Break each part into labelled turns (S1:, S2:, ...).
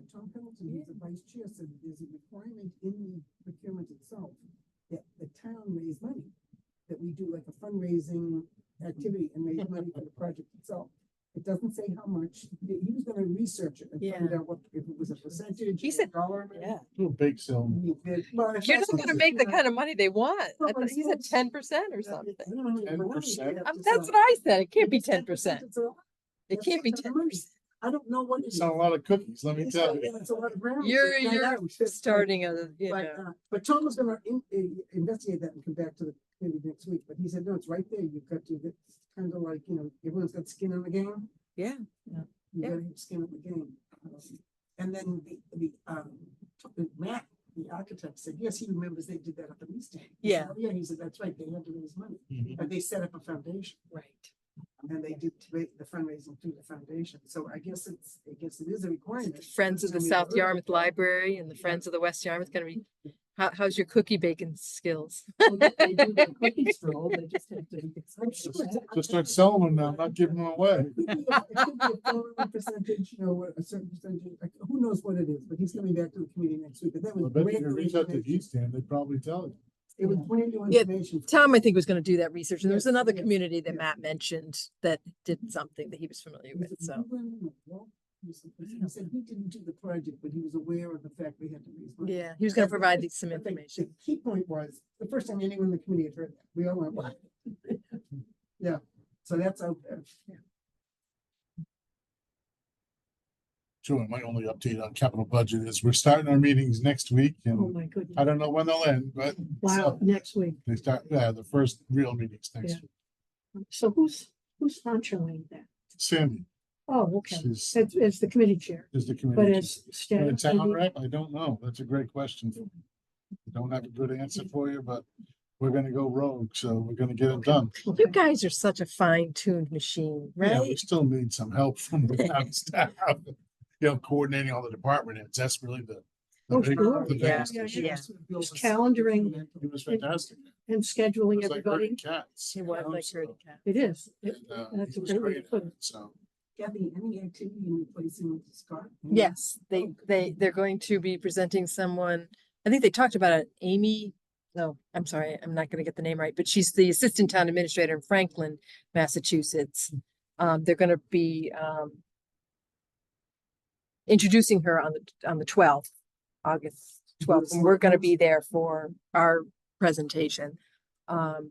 S1: to me, the vice chair said that there's a requirement in the procurement itself that the town raise money, that we do like a fundraising activity and raise money for the project itself. It doesn't say how much, he he was gonna research it and find
S2: Yeah.
S1: out what, if it was a percentage.
S2: He
S1: or a
S2: said-
S1: Dollar. amount.
S2: Yeah.
S3: Do a bake sale.
S1: I mean, that- well,
S2: You're
S1: that's
S2: not gonna
S1: what-
S2: make the kind of money they want.
S1: No,
S2: I
S1: but
S2: thought
S1: it's
S2: you said
S1: not-
S2: ten percent or
S1: Yeah,
S2: something.
S1: I don't know how many
S3: 10%?
S1: money-
S2: Um, That's what I said. It can't be ten percent.
S1: It's a lot.
S2: It
S1: That's
S2: can't
S1: a
S2: be
S1: lot of
S2: ten
S1: money.
S2: percent.
S1: I don't know what it is.
S3: It's not a lot of cookies, let me
S1: It's
S3: tell
S1: not-
S3: you.
S1: It's a lot of ground.
S2: You're,
S1: I
S2: you're
S1: know, it's just-
S2: starting a, you
S1: But,
S2: know,
S1: uh, but Tom was gonna in, in- investigate that and come back to the committee next week, but he said, no, it's right there, you've got to, it's kind of like, you know, everyone's got skin in the game.
S2: Yeah.
S1: You
S2: Yeah.
S1: gotta have skin in the game. Um, And then the, the, um, t- Matt, the architect said, yes, he remembers they did that up in Easton. He said,
S2: Yeah.
S1: "Oh, Yeah, he said, that's right, they had to raise money,
S3: Mhm.
S1: and they set up a foundation,
S2: right.
S1: and they did ra- the fundraising through the foundation, so I guess it's, I guess it is a requirement.
S2: The Friends of the South Yarmouth Library and the Friends of the West Yarmouth gonna be, how, how's your cookie baking skills?
S4: Well, they- they do their cookies for all, they just have to make it
S1: I'm sure
S4: special.
S1: it's-
S3: Just start selling them now, not giving them away.
S1: It could be a- it could be a following Percentage, you know, a certain percentage, like, who knows what it is, but he's coming back to the committee next week, but that
S3: I
S1: was
S3: bet
S1: brand
S3: if you
S1: new
S3: reach out to
S1: information.
S3: East Ham, they'd probably tell you.
S1: It was brand new
S2: Yeah,
S1: information. for
S2: Tom, I think, was gonna do that research. And there was
S1: Yes,
S2: another
S1: yes,
S2: community that
S1: yes.
S2: Matt mentioned that did something that he was familiar
S1: him.
S2: with,
S1: He said,
S2: so.
S1: "You went on a walk or something." He said he didn't do the project, but he was aware of the fact we had to raise money.
S2: Yeah, he was gonna
S1: But-
S2: provide these some
S1: but the-
S2: information.
S1: The key point was, the first time anyone in the committee had heard that, we all went, what? Yeah, so that's out there.
S3: Sure, my only update on capital budget is we're starting our meetings next week
S4: Oh,
S3: and
S4: my goodness.
S3: I don't know when they'll end, but
S4: Wow, next week.
S3: they start, yeah, the first real meetings next
S4: Yeah.
S3: week.
S4: So who's, who's sponsoring that?
S3: Sandy
S4: Oh, okay.
S3: is,
S4: It's, it's the committee chair,
S3: is the
S4: but
S3: committee.
S4: it's
S3: For the
S4: staff.
S3: town
S4: maybe?
S3: rep, I don't know. That's a great question. I Don't have a good answer for you, but we're gonna go rogue, so we're gonna get it done.
S4: Okay.
S2: You guys are such a fine tuned machine,
S3: Yeah,
S2: right?
S3: We still need some help from the town staff. You know, coordinating all the department heads, that's really the. the
S4: Oh,
S3: big-
S4: sure.
S3: the
S2: Yeah,
S3: biggest
S4: yeah,
S3: issue.
S2: yeah.
S4: It's calendaring.
S3: It was fantastic.
S4: And scheduling
S3: It's like herding
S4: everybody.
S3: cats.
S2: It
S3: you
S2: was
S3: know,
S2: like
S3: so-
S2: herding cats.
S4: It is. It-
S3: and, uh,
S4: that's
S3: he
S4: a
S3: was
S4: great way to
S3: great at
S4: put it.
S3: it, So,
S1: Gabby, any activity in replacing Scott?
S2: Yes, they, they, they're going to be presenting someone, I think they talked about it, Amy, no, I'm sorry, I'm not gonna get the name right, but she's the Assistant Town Administrator in Franklin, Massachusetts. Um, they're gonna be, um, introducing her on the, on the twelfth, August twelfth, and we're gonna be there for our presentation. Um,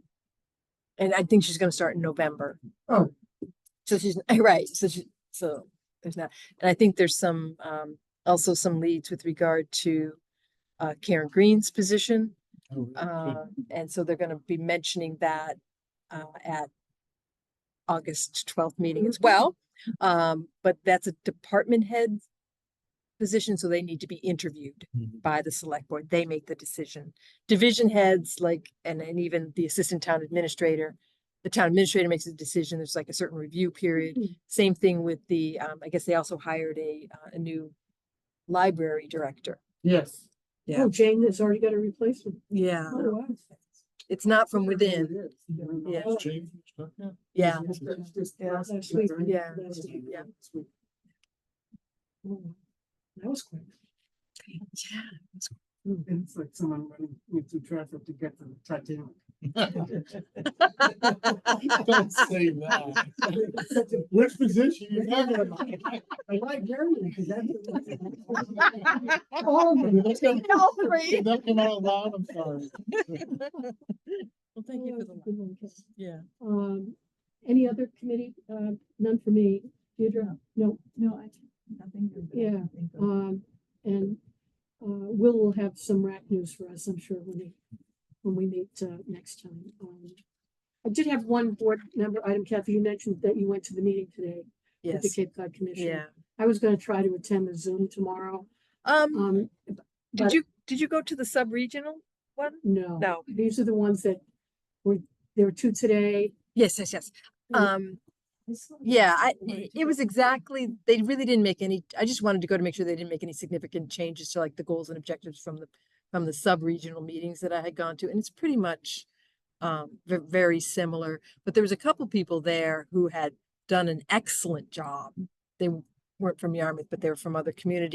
S2: and I think she's gonna start in November.
S1: Oh.
S2: So she's, right, so she, so there's not, and I think there's some, um, also some leads with regard to uh, Karen Green's position.
S3: oh, really good.
S2: Uh, and so they're gonna be mentioning that, uh, at August twelfth meeting as
S1: Mhm.
S2: well. Um, but that's a department head position, so they need to be interviewed
S3: Mhm.
S2: by the select board. They make the decision. Division heads like, and, and even the assistant town administrator, the town administrator makes a decision. There's like a certain review period.
S4: Mhm.
S2: Same thing with the, um, I guess they also hired a, uh, a new library director.
S1: Yes.
S2: Yeah.
S4: Oh, Jane has already got a replacement.
S1: Uh,
S2: Yeah.
S4: Oh, wow.
S2: It's not from
S1: Whatever it
S2: within.
S1: is, you know,
S2: Yeah.
S1: it's
S3: Change, stuff, yeah.
S2: Yeah.
S1: just- it's just
S4: Yeah,
S1: last
S4: that's
S1: week,
S4: sweet.
S1: right?
S2: Yeah.
S4: That's sweet.
S2: Yeah.
S1: It's week.
S4: Oh, That was quick.
S1: And It's like someone running you know, through traffic to get to the Titanic.
S3: Don't say that.
S1: Such a-
S3: Which position you talking about?
S1: I like Germany, 'cause that's-
S3: All
S2: three.
S3: Did that come out loud? I'm sorry.
S2: Well, thank you
S4: Oh,
S2: for the,
S4: that's a
S2: laugh.
S4: good one, Kate.
S2: yeah.
S4: Um, any other committee? Uh, none for me. Deirdre? No.
S5: No, I, nothing. new that I can
S4: Yeah,
S5: think of.
S4: Um, and, uh, Will will have some rack news for us, I'm sure, when he, when we meet, uh, next time. Um, I did have one board member item, Kathy, you mentioned that you went to the meeting today with the
S2: Yes,
S4: Cape Cod Commission.
S2: yeah.
S4: I was gonna try to attend the Zoom tomorrow.
S2: Um,
S4: Um,
S2: did
S4: but-
S2: you, did you go to the sub-regional one?
S4: no.
S2: No.
S4: These are the ones that were, there were two today.
S2: Yes, yes, yes.
S4: Mm.
S2: Um,
S5: I saw that
S2: yeah, I,
S5: something
S2: i-
S5: like
S2: it was exactly, they really didn't make any, I just wanted to go to make sure they didn't make any significant changes to like the goals and objectives from the, from the sub-regional meetings that I had gone to, and it's pretty much um, ve- very similar, but there was a couple people there who had done an excellent job. They w- weren't from Yarmouth, but they were from other communities.